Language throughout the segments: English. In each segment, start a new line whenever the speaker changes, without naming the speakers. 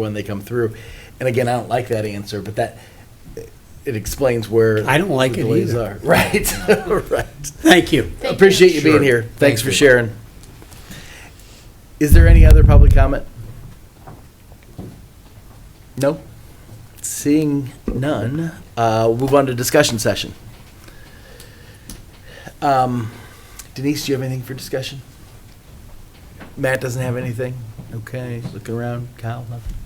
when they come through. And again, I don't like that answer, but that, it explains where.
I don't like
the
it
delays
either.
are. Right, right.
Thank you.
Thank you.
Appreciate you being
Sure.
here. Thanks
Thank
for
you.
sharing. Is there any other public comment? No? Seeing none, uh, we'll move on to discussion session. Um, Denise, do you have anything for discussion? Matt doesn't have anything? Okay, looking around. Kyle, nothing?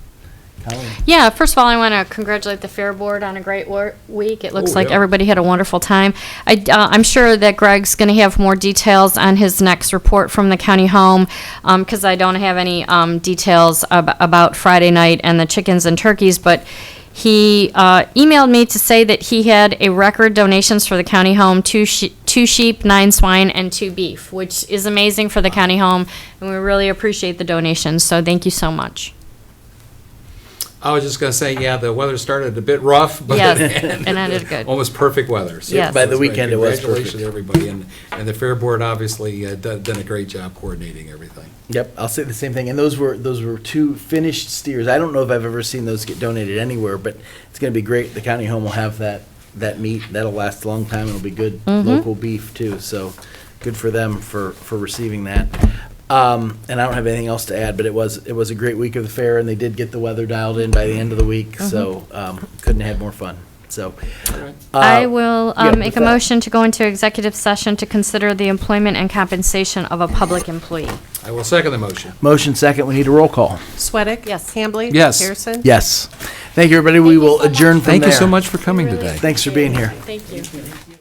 Colleen?
Yeah, first of all, I want to congratulate the Fair Board on a great wor- week. It looks
Oh,
like
yeah.
everybody had a wonderful time. I, uh, I'm sure that Greg's going to have more details on his next report from the county home because I don't have any um, details ab- about Friday night and the chickens and turkeys, but he uh, emailed me to say that he had a record donations for the county home two, she- two sheep, nine swine, and two beef, which is amazing for the county home, and we really appreciate the donations. So thank you so much.
I was just gonna say, yeah, the weather started a bit rough, but
Yes,
it
and ended good.
Um,
almost perfect weather. So
Yes. By
the
that's great.
weekend, it was
Congratulations, to everybody, and, and the Fair Board obviously uh, done, done a great job coordinating everything.
Yep, I'll say the same thing. And those were those were two finished steers. I don't know if I've ever seen those get donated anywhere, but it's going to be great. The county home will have that that meat. That'll last a long time. It'll be good local beef too. So good for them for for receiving that. Um, and I don't have anything else to add, but it was it was a great week of the fair, and they did get the weather dialed in by the end of the week. So um, couldn't have had more fun. So uh,
I will
yeah,
uh, make
with
a
that-
motion to go into executive session to consider the employment and compensation of a public employee.
I will second the motion.
Motion second. We need a roll call.
Sweattick?
Yes.
Hambley?
Yes.
Harrison?
Yes. Thank you, everybody. We will adjourn from there.
for coming today.
Thanks for being here.
Thank you.